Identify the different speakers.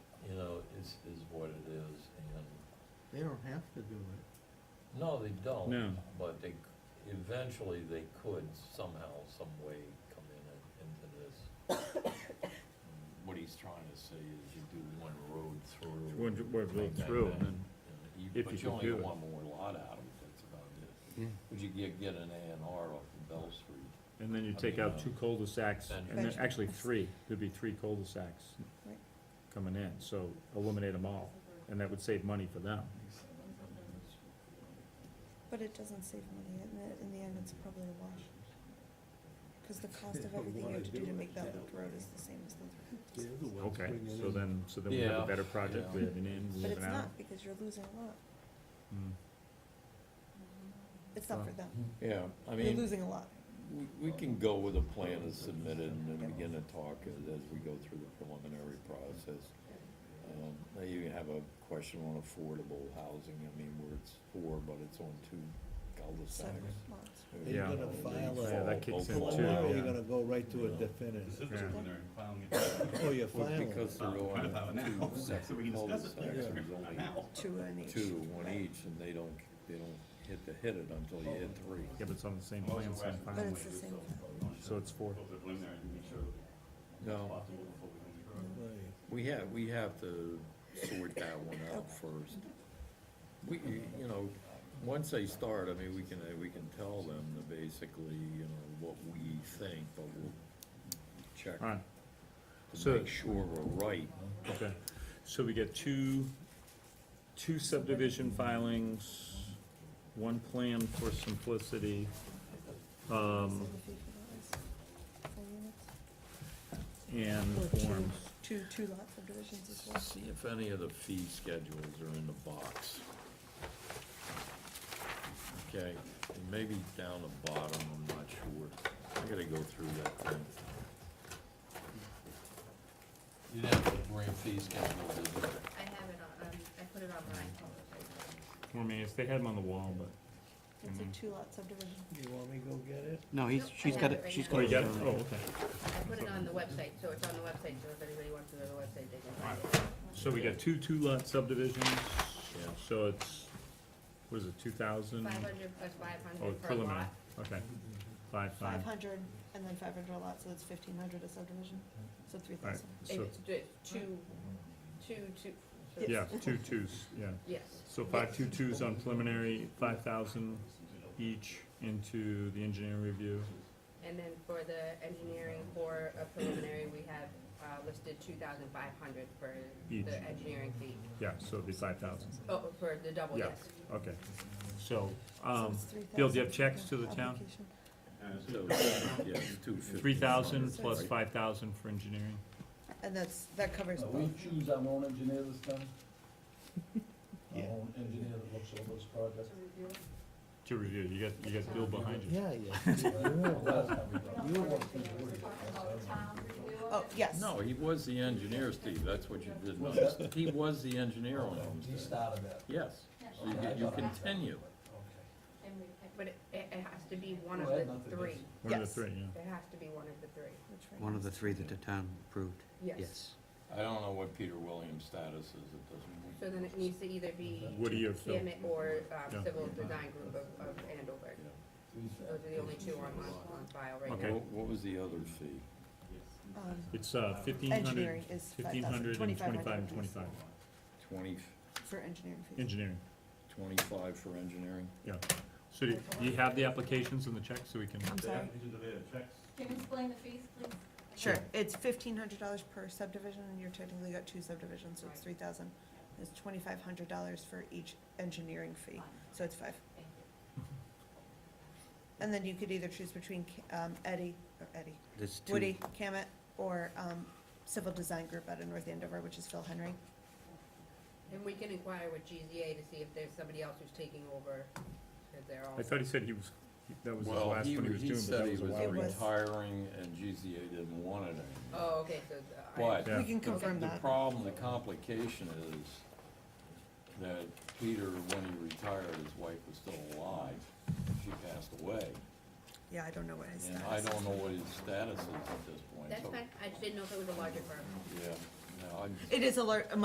Speaker 1: They don't have to do it.
Speaker 2: No, they don't.
Speaker 3: No.
Speaker 2: But they, eventually they could somehow, some way come in and- into this. What he's trying to say is you do one road through.
Speaker 3: One j- one road through, and then
Speaker 2: Yeah, you-
Speaker 3: if you
Speaker 2: But
Speaker 3: can
Speaker 2: you only
Speaker 3: do
Speaker 2: get
Speaker 3: it.
Speaker 2: one more lot out of it, that's about it. Would you get, get an A and R off of Bell Street?
Speaker 3: And then you
Speaker 2: I
Speaker 3: take
Speaker 2: mean,
Speaker 3: out
Speaker 2: uh,
Speaker 3: two cul-de-sacs,
Speaker 2: then-
Speaker 3: and then,
Speaker 4: Bench-
Speaker 3: actually, three, there'd be three cul-de-sacs
Speaker 4: Right.
Speaker 3: coming in, so eliminate them all, and that would save money for them.
Speaker 4: But it doesn't save money, in the, in the end, it's probably a wash. Cause the cost of everything you have to do to make that loop road is the same as the
Speaker 1: The
Speaker 4: three
Speaker 1: other ones
Speaker 3: Okay,
Speaker 1: bring it
Speaker 3: so
Speaker 1: in.
Speaker 3: then, so then we have
Speaker 2: Yeah,
Speaker 3: a better project,
Speaker 2: yeah.
Speaker 3: we have an in, we
Speaker 4: But
Speaker 3: have
Speaker 4: it's
Speaker 3: an out.
Speaker 4: not, because you're losing a lot,
Speaker 3: Mm.
Speaker 4: it's not for them,
Speaker 2: Yeah, I
Speaker 4: you're losing a lot.
Speaker 2: We, we can go with a plan as submitted and then begin to talk as, as we go through the preliminary process. Um, Now you have a question on affordable housing, I mean, where it's four, but it's on two cul-de-sacs.
Speaker 4: separate lots.
Speaker 1: They're
Speaker 3: Yeah.
Speaker 1: gonna
Speaker 2: They
Speaker 1: file
Speaker 2: fall
Speaker 3: Yeah, that
Speaker 2: both
Speaker 3: kicks in
Speaker 2: along.
Speaker 3: too,
Speaker 1: Tomorrow,
Speaker 3: yeah.
Speaker 1: you're gonna go right to a
Speaker 5: This
Speaker 1: definitive.
Speaker 5: is
Speaker 3: Yeah.
Speaker 5: when they're filing it.
Speaker 1: Oh, you're
Speaker 2: Well,
Speaker 1: filing.
Speaker 2: Because they're
Speaker 5: Well, kind of
Speaker 2: on
Speaker 5: filing now,
Speaker 2: two
Speaker 5: so we
Speaker 2: separate
Speaker 5: can discuss it
Speaker 2: cul-de-sacs,
Speaker 5: later.
Speaker 2: there's
Speaker 5: Not
Speaker 2: only
Speaker 5: now.
Speaker 4: Two in each.
Speaker 2: two, one
Speaker 4: Right.
Speaker 2: each, and they don't, they don't hit the hit it until you hit three.
Speaker 3: Yeah, but it's on the same plan, same
Speaker 5: But
Speaker 4: But
Speaker 3: file,
Speaker 4: it's the same,
Speaker 3: so it's four.
Speaker 5: Go to the preliminary and make sure it's
Speaker 2: No,
Speaker 5: possible before we go any further.
Speaker 1: Right.
Speaker 2: we have, we have to sort that one out first. We, you know, once they start, I mean, we can, uh, we can tell them to basically, you know, what we think, but we'll check
Speaker 3: All right,
Speaker 2: to
Speaker 3: so-
Speaker 2: make sure we're right.
Speaker 3: okay, so we get two, two subdivision filings, one plan for simplicity, um,
Speaker 4: Same fee for that is four units.
Speaker 3: and
Speaker 4: Or two,
Speaker 3: forms.
Speaker 4: two, two lot subdivisions as well.
Speaker 2: See if any of the fee schedules are in the box. Okay, and maybe down the bottom, I'm not sure. I gotta go through that thing. You didn't have to bring fee schedules, did you?
Speaker 6: I have it on, um, I put it online.
Speaker 3: Form A, they had them on the wall, but.
Speaker 4: It's a two lot subdivision.
Speaker 1: You want me to go get it?
Speaker 7: No, he's,
Speaker 6: Nope, I
Speaker 7: she's
Speaker 6: have
Speaker 7: got
Speaker 6: it
Speaker 7: it,
Speaker 6: right
Speaker 7: she's
Speaker 6: now.
Speaker 7: got
Speaker 3: Oh,
Speaker 7: it.
Speaker 3: you got it, oh, okay.
Speaker 6: I put it on the website, so it's on the website, so if anybody wants to go to the website, they can find it.
Speaker 3: So we got two two-lot subdivisions,
Speaker 2: Yeah.
Speaker 3: so it's, what is it, two thousand?
Speaker 6: Five hundred plus five
Speaker 3: Oh,
Speaker 6: hundred per
Speaker 3: preliminary,
Speaker 6: lot.
Speaker 3: okay, five, five,
Speaker 4: Five hundred and then five hundred a lot, so that's fifteen hundred a subdivision, so three
Speaker 3: alright,
Speaker 4: thousand.
Speaker 3: so,
Speaker 6: It's ju- two, two, two. so-
Speaker 3: yeah, two twos, yeah.
Speaker 6: Yes,
Speaker 3: So five two twos on preliminary, five thousand each into the engineering review,
Speaker 6: and then for the engineering for a preliminary, we have, uh, listed two thousand five hundred for
Speaker 3: Each.
Speaker 6: the engineering fee.
Speaker 3: yeah, so it'd be five thousand,
Speaker 6: Oh, for the double,
Speaker 3: Yeah.
Speaker 6: yes.
Speaker 3: okay. So,
Speaker 4: So
Speaker 3: um,
Speaker 4: it's three
Speaker 3: Bill, do you
Speaker 4: thousand
Speaker 3: have checks to
Speaker 4: per
Speaker 3: the town?
Speaker 4: application.
Speaker 5: Uh, so-
Speaker 2: So, yeah, two fifty.
Speaker 3: three thousand plus
Speaker 4: Right.
Speaker 3: five thousand for engineering,
Speaker 4: And that's, that covers
Speaker 8: Uh,
Speaker 4: both.
Speaker 8: We choose our own engineer this time? Our own engineer that looks over this project?
Speaker 3: to review, you got, you got Bill behind you.
Speaker 1: Yeah, yeah.
Speaker 8: Last time we done it. You were one who worried.
Speaker 4: Oh, yes.
Speaker 2: No, he was the engineer, Steve, that's what you didn't
Speaker 8: Was
Speaker 2: notice.
Speaker 8: that-
Speaker 2: He was the engineer on
Speaker 8: He
Speaker 2: Homestead.
Speaker 8: started that.
Speaker 2: Yes, so you, get- you continue.
Speaker 8: Okay.
Speaker 6: But it, it it has to be one of
Speaker 8: Well,
Speaker 6: the
Speaker 8: nothing is-
Speaker 6: three.
Speaker 3: One of the
Speaker 4: Yes.
Speaker 3: three, yeah.
Speaker 6: It has to be one of the three.
Speaker 4: Which right
Speaker 7: One
Speaker 4: now
Speaker 7: of the
Speaker 4: is-
Speaker 7: three that the town approved,
Speaker 6: Yes.
Speaker 7: yes.
Speaker 2: I don't know what Peter Williams' status is, it doesn't.
Speaker 6: So then it needs to either be
Speaker 3: Woody or Phil?
Speaker 6: Kimmett or um,
Speaker 3: Yeah.
Speaker 6: Civil Design Group of, of Andover. Those are the only two on, on on file right
Speaker 3: Okay.
Speaker 6: now.
Speaker 2: What, what was the other fee?
Speaker 4: Um,
Speaker 3: It's uh, fifteen hundred,
Speaker 4: engineering is five
Speaker 3: fifteen
Speaker 4: thousand,
Speaker 3: hundred and
Speaker 4: twenty-five
Speaker 3: twenty-five
Speaker 4: hundred
Speaker 3: and twenty-five,
Speaker 2: Twenty,
Speaker 4: for engineering fees.
Speaker 3: engineering,
Speaker 2: twenty-five for engineering?
Speaker 3: yeah. So do do you have the applications and the checks so we can?
Speaker 4: I'm
Speaker 5: The
Speaker 4: sorry.
Speaker 5: applications are there, checks.
Speaker 9: Can you explain the fees, please?
Speaker 4: Sure, it's fifteen hundred dollars per subdivision, and you're technically got two subdivisions, so it's three thousand. It's twenty-five hundred dollars for each engineering fee, so it's five.
Speaker 9: Thank you.
Speaker 4: And then you could either choose between K- um, Eddie, or Eddie,
Speaker 7: There's two.
Speaker 4: Woody, Camet, or um, Civil Design Group out of North Andover, which is Phil Henry.
Speaker 6: And we can inquire with GZA to see if there's somebody else who's taking over, because they're all.
Speaker 3: I thought he said he was, that was his last one he was doing, but that was a
Speaker 4: was
Speaker 3: while
Speaker 4: It
Speaker 3: ago.
Speaker 4: was-
Speaker 2: retiring and GZA didn't want it anymore.
Speaker 6: Oh, okay, so. uh, I-
Speaker 2: But
Speaker 3: Yeah.
Speaker 4: We can
Speaker 2: the-
Speaker 4: confirm
Speaker 2: The
Speaker 4: that.
Speaker 2: problem, the complication is that Peter, when he retired, his wife was still alive. She passed away.
Speaker 4: Yeah, I don't know what his
Speaker 2: And
Speaker 4: status
Speaker 2: I
Speaker 4: is.
Speaker 2: don't know what his status is at this point.
Speaker 6: That's
Speaker 2: so-
Speaker 6: fine, I just didn't know if it was a larger firm.
Speaker 2: Yeah, no, I'm.
Speaker 4: It is a lar- a